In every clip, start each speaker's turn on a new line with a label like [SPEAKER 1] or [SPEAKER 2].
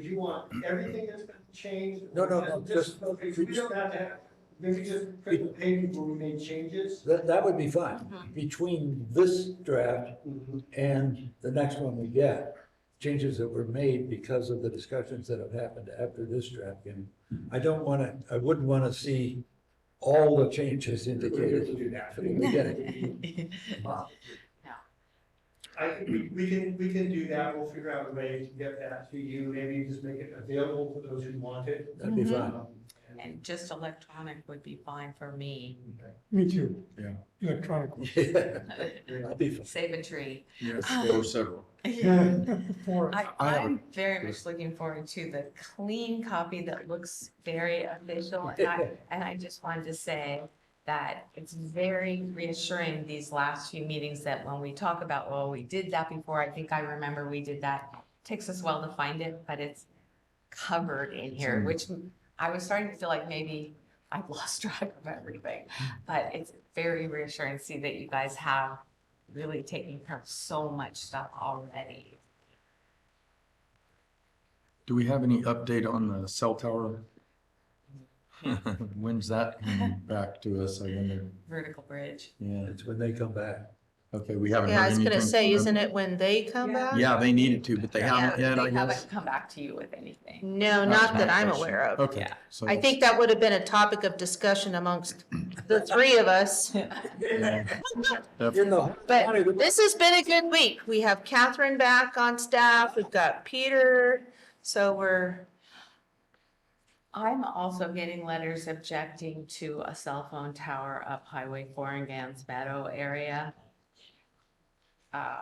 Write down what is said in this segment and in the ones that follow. [SPEAKER 1] you want everything that's been changed?
[SPEAKER 2] No, no, no, just-
[SPEAKER 1] Okay, We don't have to have, maybe just print the page where we made changes?
[SPEAKER 2] That, that would be fine, between this draft and the next one we get, changes that were made because of the discussions that have happened after this draft. And I don't wanna, I wouldn't wanna see all the changes indicated from the beginning.
[SPEAKER 1] I think we, we can, we can do that, we'll figure out a way to get that to you, maybe just make it available to those who want it.
[SPEAKER 2] That'd be fine.
[SPEAKER 1] Um, and-
[SPEAKER 3] And just electronic would be fine for me.
[SPEAKER 4] Me too.
[SPEAKER 5] Yeah.
[SPEAKER 4] Electronic.
[SPEAKER 2] Yeah, That'd be fine.
[SPEAKER 3] Save a tree. Ah.
[SPEAKER 5] Yes, or several.
[SPEAKER 4] For-
[SPEAKER 3] I,
[SPEAKER 5] I have a-
[SPEAKER 3] I'm very much looking forward to the clean copy that looks very official. And I, and I just wanted to say that it's very reassuring these last few meetings that when we talk about, well, we did that before, I think I remember we did that. Takes us well to find it, but it's covered in
[SPEAKER 5] Mm-hmm.
[SPEAKER 3] here, which I was starting to feel like maybe I've lost track of everything. But it's very reassuring to see that you guys have really taken care of so much stuff already.
[SPEAKER 5] Do we have any update on the cell tower? When's that coming back to us, I wonder?
[SPEAKER 3] vertical bridge.
[SPEAKER 5] Yeah,
[SPEAKER 2] It's when they come back.
[SPEAKER 5] okay, we haven't
[SPEAKER 6] Yeah, I
[SPEAKER 5] heard
[SPEAKER 6] was
[SPEAKER 5] anything.
[SPEAKER 6] gonna say,
[SPEAKER 5] from them.
[SPEAKER 6] isn't it when they come
[SPEAKER 3] Yeah.
[SPEAKER 6] back?
[SPEAKER 5] Yeah, they needed to, but they haven't
[SPEAKER 3] Yeah,
[SPEAKER 5] yet, Um, I
[SPEAKER 3] They
[SPEAKER 5] guess.
[SPEAKER 3] haven't come back to you with anything.
[SPEAKER 6] No,
[SPEAKER 5] That's
[SPEAKER 6] not
[SPEAKER 5] my
[SPEAKER 6] that I'm
[SPEAKER 5] question.
[SPEAKER 6] aware of.
[SPEAKER 5] Okay,
[SPEAKER 3] Yeah.
[SPEAKER 5] so.
[SPEAKER 6] I think that would have been a topic of discussion amongst the three of us.
[SPEAKER 5] yeah, def-
[SPEAKER 2] In the whole
[SPEAKER 6] But
[SPEAKER 2] county, we-
[SPEAKER 6] This has been a good week. We have Catherine back on staff. We've got Peter. So we're,
[SPEAKER 3] I'm also getting letters objecting to a cell phone tower up Highway four in Gans Meadow area. Uh,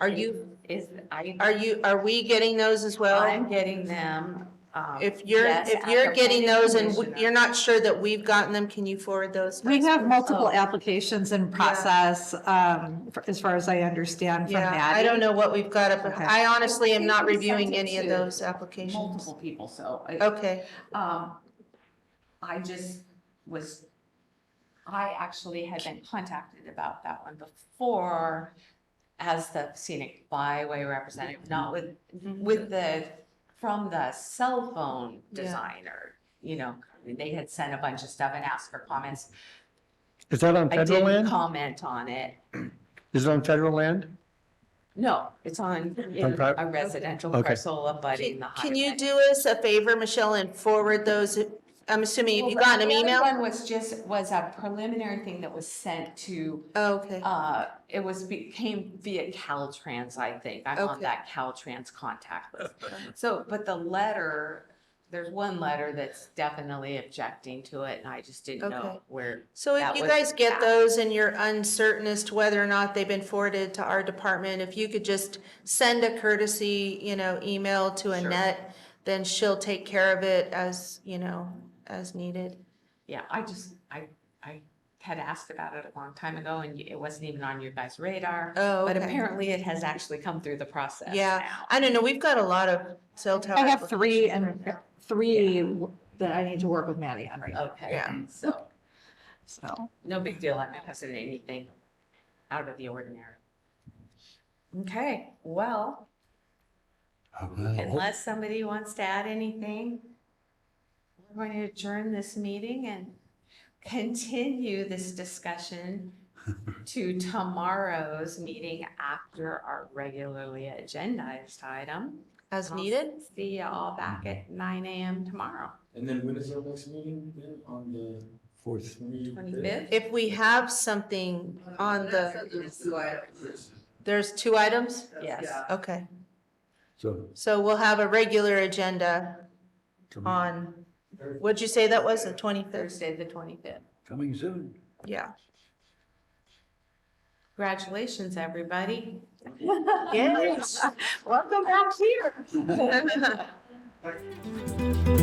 [SPEAKER 6] are you,
[SPEAKER 3] Is, I,
[SPEAKER 6] are you, are we getting those as well?
[SPEAKER 3] I'm getting them. um,
[SPEAKER 6] If you're,
[SPEAKER 3] yes,
[SPEAKER 6] if
[SPEAKER 3] at
[SPEAKER 6] you're
[SPEAKER 3] the
[SPEAKER 6] getting
[SPEAKER 3] planning
[SPEAKER 6] those and
[SPEAKER 3] commission.
[SPEAKER 6] you're not sure that we've gotten them, can you forward those?
[SPEAKER 7] We
[SPEAKER 6] next
[SPEAKER 7] have
[SPEAKER 6] week?
[SPEAKER 7] multiple
[SPEAKER 3] Oh.
[SPEAKER 7] applications in process, um, for- as far as I understand from
[SPEAKER 6] Yeah, I
[SPEAKER 7] Maddie.
[SPEAKER 6] don't know what we've got up.
[SPEAKER 7] Okay.
[SPEAKER 6] I honestly am not
[SPEAKER 3] I think we sent
[SPEAKER 6] reviewing
[SPEAKER 3] it
[SPEAKER 6] any of
[SPEAKER 3] to
[SPEAKER 6] those applications.
[SPEAKER 3] Multiple people, so. I-
[SPEAKER 6] Okay.
[SPEAKER 3] Um, I just was, I actually had been contacted about that one before as the scenic byway representative, not with, with the, from the cell phone
[SPEAKER 6] Mm-hmm. Yeah.
[SPEAKER 3] designer. You know, they had sent a bunch of stuff and asked for comments.
[SPEAKER 8] Is that on
[SPEAKER 3] I
[SPEAKER 8] federal
[SPEAKER 3] didn't
[SPEAKER 8] land?
[SPEAKER 3] comment on it.
[SPEAKER 8] Is it on federal land?
[SPEAKER 3] No, it's on in
[SPEAKER 8] On pri-
[SPEAKER 3] a residential
[SPEAKER 8] Okay.
[SPEAKER 3] parcel abutting the highway.
[SPEAKER 6] Can you do us a favor, Michelle, and forward those, I'm assuming, have you
[SPEAKER 3] Well,
[SPEAKER 6] gotten them
[SPEAKER 3] the other
[SPEAKER 6] email?
[SPEAKER 3] One was just, was a preliminary thing that was sent to
[SPEAKER 6] Oh, Okay,
[SPEAKER 3] Uh, it was, became via Caltrans, I think. I'm on
[SPEAKER 6] Okay.
[SPEAKER 3] that Caltrans contact list. So, but the letter, there's one letter that's definitely objecting to it and I just didn't
[SPEAKER 6] Okay.
[SPEAKER 3] know where.
[SPEAKER 6] so
[SPEAKER 3] that
[SPEAKER 6] if you
[SPEAKER 3] was
[SPEAKER 6] guys get
[SPEAKER 3] at.
[SPEAKER 6] those and you're uncertain as to whether or not they've been forwarded to our department, if you could just send a courtesy, you know, email to
[SPEAKER 3] Sure.
[SPEAKER 6] Annette, then she'll take care of it as, you know, as needed.
[SPEAKER 3] Yeah, I just, I, I had asked about it a long time ago and it wasn't even on your guys' radar.
[SPEAKER 6] Oh,
[SPEAKER 3] But
[SPEAKER 6] okay.
[SPEAKER 3] apparently it has actually come through the process
[SPEAKER 6] Yeah.
[SPEAKER 3] now.
[SPEAKER 6] I don't know, we've got a lot of cell tower.
[SPEAKER 7] I have three and,
[SPEAKER 6] applications right
[SPEAKER 7] three that I need to work with Maddie on right now,
[SPEAKER 3] Okay,
[SPEAKER 6] Yeah.
[SPEAKER 3] so
[SPEAKER 7] so.
[SPEAKER 3] no big deal. I haven't posted anything out of the ordinary. Okay, well. Unless somebody wants to add anything, we're going to adjourn this meeting and continue this discussion to tomorrow's meeting after our regularly agendized item.
[SPEAKER 6] now, As needed.
[SPEAKER 3] See you all back at nine AM tomorrow,
[SPEAKER 5] And then when is our next meeting then, on the? Fourth.
[SPEAKER 3] twenty-fifth.
[SPEAKER 6] If we have something on the, there's two items?
[SPEAKER 3] Yes.
[SPEAKER 6] Okay.
[SPEAKER 2] So.
[SPEAKER 6] So we'll have a regular agenda on, what'd you say that was, the twenty-third?
[SPEAKER 3] Thursday, the twenty-fifth.
[SPEAKER 2] Coming soon.
[SPEAKER 6] Yeah.
[SPEAKER 3] Congratulations, everybody.
[SPEAKER 6] Yes.
[SPEAKER 3] Welcome back here.